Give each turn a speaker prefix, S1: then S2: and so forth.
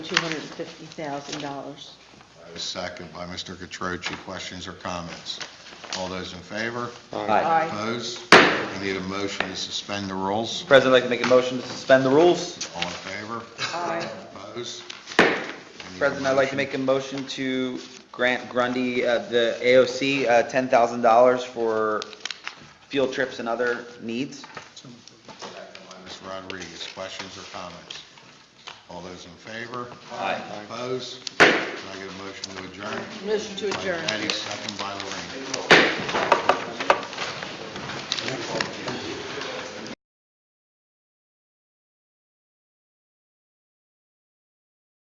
S1: $250,000.
S2: I was second by Mr. Catroci. Questions or comments? All those in favor?
S3: Aye.
S2: Opposed? We need a motion to suspend the rules.
S3: President, I'd like to make a motion to suspend the rules.
S2: All in favor?
S1: Aye.
S2: Opposed? We need a
S3: President, I'd like to
S2: motion.
S3: make a motion to grant Grundy, uh, the AOC, uh, $10,000 for field trips and other needs.
S2: Second by Ms. Rodriguez. Questions or comments? All those in favor?
S3: Aye.
S2: Opposed? Can I get a motion to adjourn?
S1: Motion to
S2: By
S1: adjourn.
S2: Betty, second by Lorraine.